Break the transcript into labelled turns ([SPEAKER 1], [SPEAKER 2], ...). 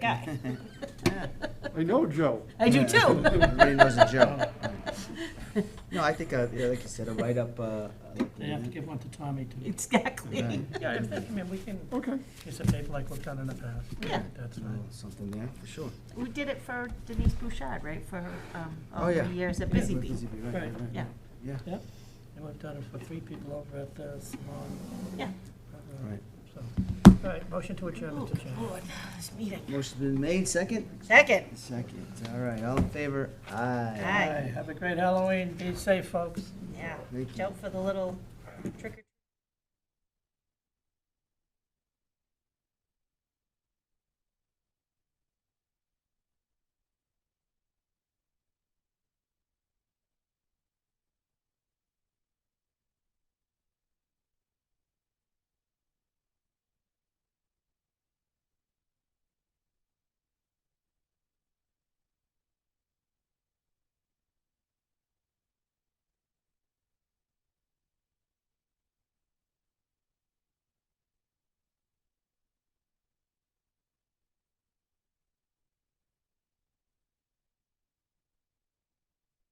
[SPEAKER 1] guy.
[SPEAKER 2] I know Joe.
[SPEAKER 1] I do too.
[SPEAKER 3] Everybody knows a Joe. No, I think, uh, yeah, like you said, a write-up, uh, uh,
[SPEAKER 4] They have to give one to Tommy to.
[SPEAKER 1] Exactly.
[SPEAKER 4] Yeah, if they- I mean, we can
[SPEAKER 2] Okay.
[SPEAKER 4] use a paper like we've done in the past.
[SPEAKER 1] Yeah.
[SPEAKER 4] That's
[SPEAKER 3] you know,
[SPEAKER 4] fine.
[SPEAKER 3] uh, something there, for sure.
[SPEAKER 1] We did it for Denise Bouchard, right, for her, um,
[SPEAKER 3] Oh,
[SPEAKER 1] all the
[SPEAKER 3] yeah.
[SPEAKER 1] years at Busy Bee.
[SPEAKER 3] Busy right, right,
[SPEAKER 4] Right.
[SPEAKER 3] right.
[SPEAKER 1] Yeah,
[SPEAKER 3] Yeah,
[SPEAKER 4] Yep. And we've done it for three people over at the salon.
[SPEAKER 1] yeah.
[SPEAKER 4] uh,
[SPEAKER 3] right.
[SPEAKER 4] so. All right, motion to adjourn, Mr. Chairman.
[SPEAKER 1] Lord, this meeting.
[SPEAKER 3] Motion's been made, second?
[SPEAKER 1] Second.
[SPEAKER 3] Second, all right, all in favor? Aye.
[SPEAKER 1] Aye.
[SPEAKER 4] Have a great Halloween. Be safe, folks.
[SPEAKER 1] Yeah,
[SPEAKER 3] Thank you.
[SPEAKER 1] Joke for the little trick or